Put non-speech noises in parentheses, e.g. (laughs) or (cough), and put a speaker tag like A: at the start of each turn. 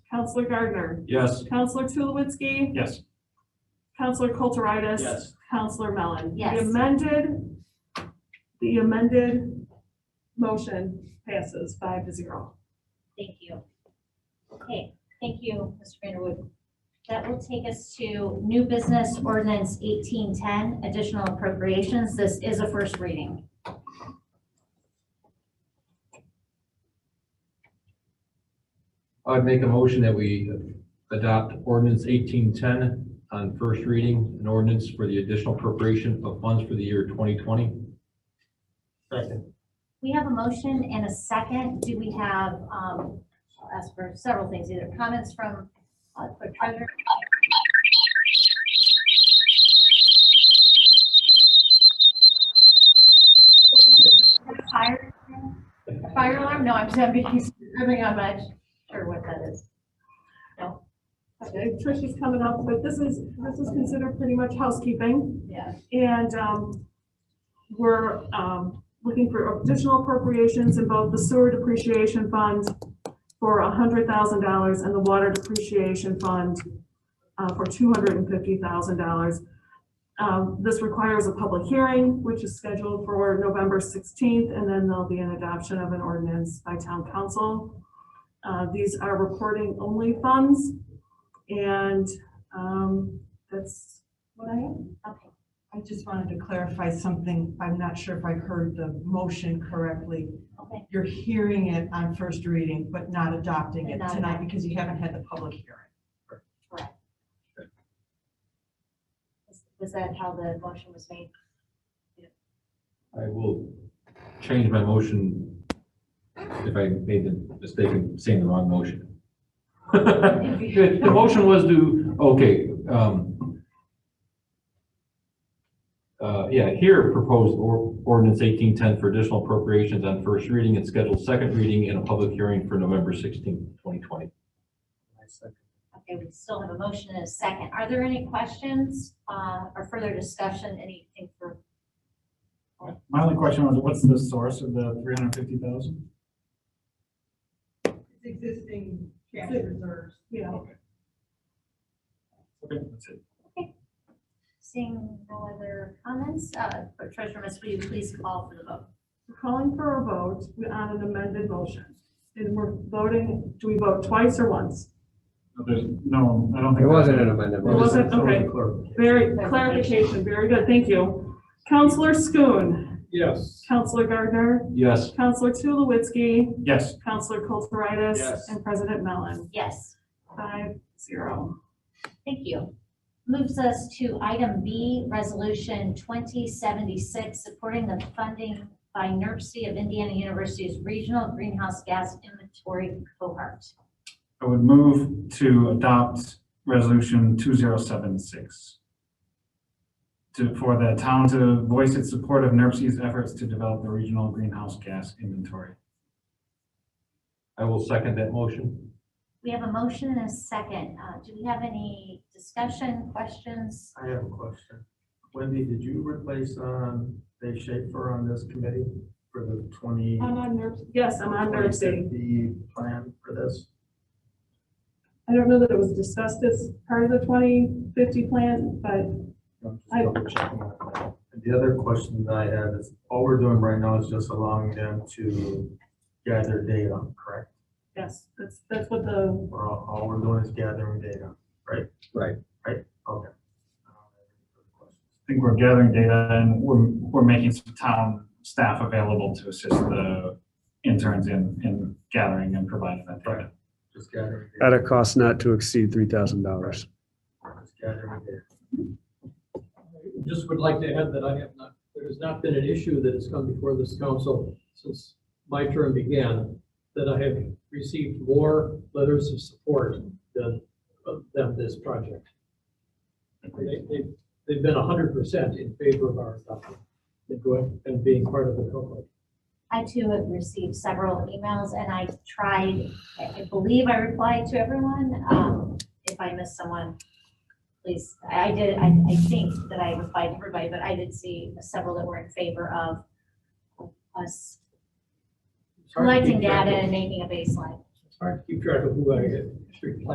A: Counselor Gardner,
B: Yes.
A: Counselor Tulowitzki,
B: Yes.
A: Counselor Kulturitis.
B: Yes.
A: Counselor Mellon.
C: Yes.
A: The amended, the amended motion passes five to zero.
C: Thank you. Okay, thank you, Mr. Vanderwood. That will take us to new business ordinance eighteen ten, additional appropriations. This is a first reading.
D: I'd make a motion that we adopt ordinance eighteen ten on first reading, an ordinance for the additional appropriation of funds for the year twenty twenty.
B: Second.
C: We have a motion and a second. Do we have, um, I'll ask for several things, either comments from, uh, clerk treasurer? Fire, fire alarm? No, I'm just having, having on my, sure what that is.
A: Okay, Trish is coming up, but this is, this is considered pretty much housekeeping.
C: Yeah.
A: And um, we're um, looking for additional appropriations in both the sewer depreciation fund for $100,000 and the water depreciation fund uh, for $250,000. Um, This requires a public hearing, which is scheduled for November 16th, and then there'll be an adoption of an ordinance by town council. Uh, These are reporting only funds, and um, that's what I have.
C: Okay.
E: I just wanted to clarify something. I'm not sure if I heard the motion correctly.
C: Okay,
E: You're hearing it on first reading, but not adopting it
C: Not
E: tonight
C: adopting.
E: because you haven't had the public hearing.
C: Is- was that how the motion was made?
D: I will change my motion if I made the mistake of saying the wrong motion. (laughs) The the motion was to, okay, um, uh, yeah, here proposed or- ordinance eighteen ten for additional appropriations on first reading and scheduled second reading and a public hearing for November sixteenth, twenty twenty.
C: Okay, we still have a motion and a second. Are there any questions, uh, or further discussion, anything for,
F: My only question was, what's the source of the three hundred fifty thousand?
E: Existing
A: cash
E: reserves.
A: Yeah,
F: Okay, that's it.
C: seeing no other comments? Uh, Clerk Treasurer Miss, will you please call for the vote?
A: we're calling for a vote on an amended motion. And we're voting, do we vote twice or once?
F: No, there's, no, I don't think.
G: It wasn't an amendment.
A: It wasn't? Okay.
G: Clerk.
A: Very, clarification, very good, thank you. Counselor Schoen,
F: Yes.
A: Counselor Gardner,
D: Yes.
A: Counselor Tulowitzki,
F: Yes.
A: Counselor Kulturitis.
F: Yes.
A: And President Mellon,
C: Yes,
A: five, zero.
C: thank you. Moves us to item B, Resolution 2076, supporting the funding by NERC C of Indiana University's Regional Greenhouse Gas Inventory Cohort.
F: I would move to adopt resolution two zero seven six. To, for the town to voice its support of NERC's efforts to develop the regional greenhouse gas inventory.
D: I will second that motion.
C: We have a motion and a second. Uh, Do we have any discussion, questions?
H: I have a question. Wendy, did you replace, um, Dave Schaefer on this committee for the twenty?
A: I'm on NERC, yes, I'm on NERC C.
H: The plan for this?
A: I don't know that it was discussed as part of the twenty fifty plan, but
H: I'm just
A: I-
H: double checking on that. And The other question that I have is, all we're doing right now is just allowing them to gather data, correct?
A: yes, that's, that's what the,
H: Or all, all we're doing is gathering data, right?
G: Right.
H: Right, okay. Um,
F: I think we're gathering data and we're, we're making some town staff available to assist the interns in, in gathering and providing that data.
H: Just gathering. data.
G: At a cost not to exceed three thousand dollars.
H: Just gathering data.
I: Just would like to add that I have not, there has not been an issue that has come before this council since my term began, that I have received more letters of support than, than this project. They, they, they've been hundred percent in favor of our adoption and going, and being part of the cohort.
C: I too have received several emails and I tried, I I believe I replied to everyone. Um, If I missed someone, please, I I did, I, I think that I replied to everybody, but I did see several that were in favor of us
I: It's hard to
C: collecting
I: keep track
C: data
I: of-
C: and making a baseline.
I: It's hard to keep track of who I have replied